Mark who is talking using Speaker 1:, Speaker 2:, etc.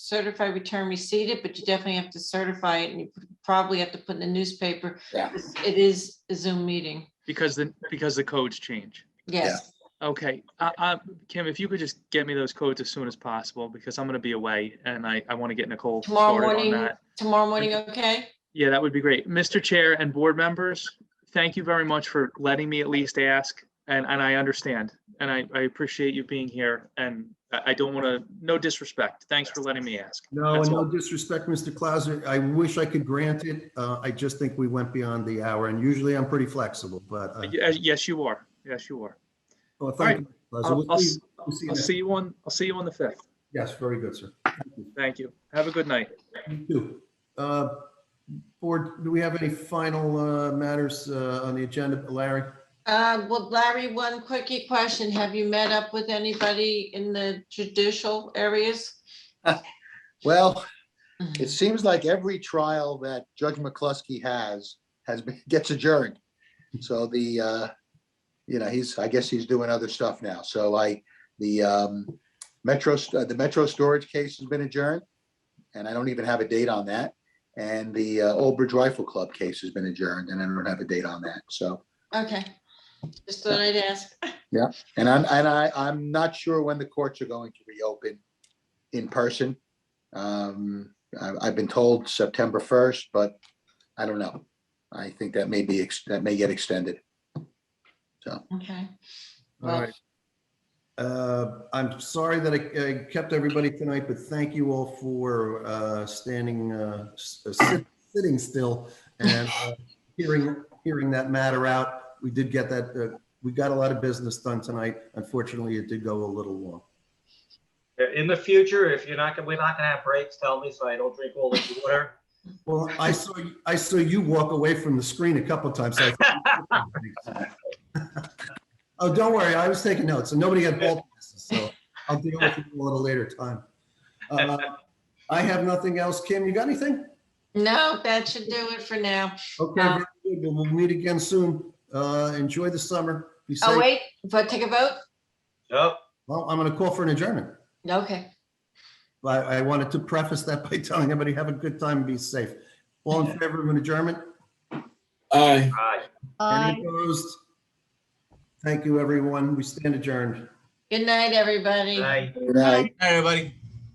Speaker 1: certify return receipted, but you definitely have to certify it and you probably have to put in the newspaper.
Speaker 2: Yeah.
Speaker 1: It is a Zoom meeting.
Speaker 3: because the, because the codes change.
Speaker 1: Yes,
Speaker 3: Okay, uh, uh, Kim, if you could just get me those codes as soon as possible, because I'm gonna be away and I, I wanna get Nicole
Speaker 1: Tomorrow
Speaker 3: started on
Speaker 1: morning.
Speaker 3: that.
Speaker 1: tomorrow morning, okay?
Speaker 3: Yeah, that would be great. Mr. Chair and board members, thank you very much for letting me at least ask. And, and I understand, and I, I appreciate you being here and I, I don't wanna, no disrespect. Thanks for letting me ask.
Speaker 4: No,
Speaker 3: That's
Speaker 4: and no
Speaker 3: all.
Speaker 4: disrespect, Mr. Clauser. I wish I could grant it. Uh, I just think we went beyond the hour and usually I'm pretty flexible, but. uh,
Speaker 3: Y- uh, Yes, you are. Yes, you are.
Speaker 4: well, thank you, Mr. Clauser.
Speaker 3: I'll-
Speaker 4: We'll
Speaker 3: I'll
Speaker 4: see-
Speaker 3: s-
Speaker 4: we'll see you
Speaker 3: I'll
Speaker 4: next-
Speaker 3: see you on, I'll see you on the fifth.
Speaker 4: Yes, very good, sir.
Speaker 3: Thank you. Have a good night.
Speaker 4: You too. Uh, Board, do we have any final uh, matters uh, on the agenda, Larry?
Speaker 1: Uh, well, Larry, one quickie question. Have you met up with anybody in the judicial areas?
Speaker 2: Well, it seems like every trial that Judge McCluskey has, has been, gets adjourned. So the, uh, you know, he's, I guess he's doing other stuff now. So I, the, um, Metro, uh, the Metro Storage case has been adjourned. And I don't even have a date on that. And the, uh, Old Bridge Rifle Club case has been adjourned and I don't have a date on that. So,
Speaker 1: Okay, just thought I'd ask.
Speaker 2: and I'm, and I, I'm not sure when the courts are going to reopen in person. Um, I've, I've been told September first, but I don't know. I think that may be, ex- that may get extended.
Speaker 1: Okay.
Speaker 3: All
Speaker 1: Well,
Speaker 3: right.
Speaker 4: Uh, I'm sorry that I I kept everybody tonight, but thank you all for uh, standing, uh, s- uh, sit- sitting still and uh, hearing, hearing that matter out. We did get that, uh, we got a lot of business done tonight. Unfortunately, it did go a little long.
Speaker 5: In the future, if you're not, gonna we're not gonna have breaks, tell me so I don't drink all this water.
Speaker 4: Well, I saw, I saw you walk away from the screen a couple times. so I- Oh, don't worry, I was taking notes, and nobody had ball passes, so I'll deal with it a little later time. Uh, I have nothing else. Kim, you got anything?
Speaker 1: No, that should do it for now.
Speaker 4: Okay,
Speaker 1: Um,
Speaker 4: very good. we'll meet again soon. Uh, Enjoy the summer. Be
Speaker 1: Oh,
Speaker 4: safe.
Speaker 1: wait, but take a vote?
Speaker 5: Nope.
Speaker 4: Well, I'm going to call for an adjournment.
Speaker 1: Okay.
Speaker 4: But I wanted to preface that by telling everybody, have a good time, and be safe. All in favor of an adjournment?
Speaker 6: Aye.
Speaker 5: Aye.
Speaker 4: Any opposed? Thank you, everyone. We stand adjourned.
Speaker 1: Good night, everybody.
Speaker 5: Aye.
Speaker 2: Good night.
Speaker 6: Hi, everybody.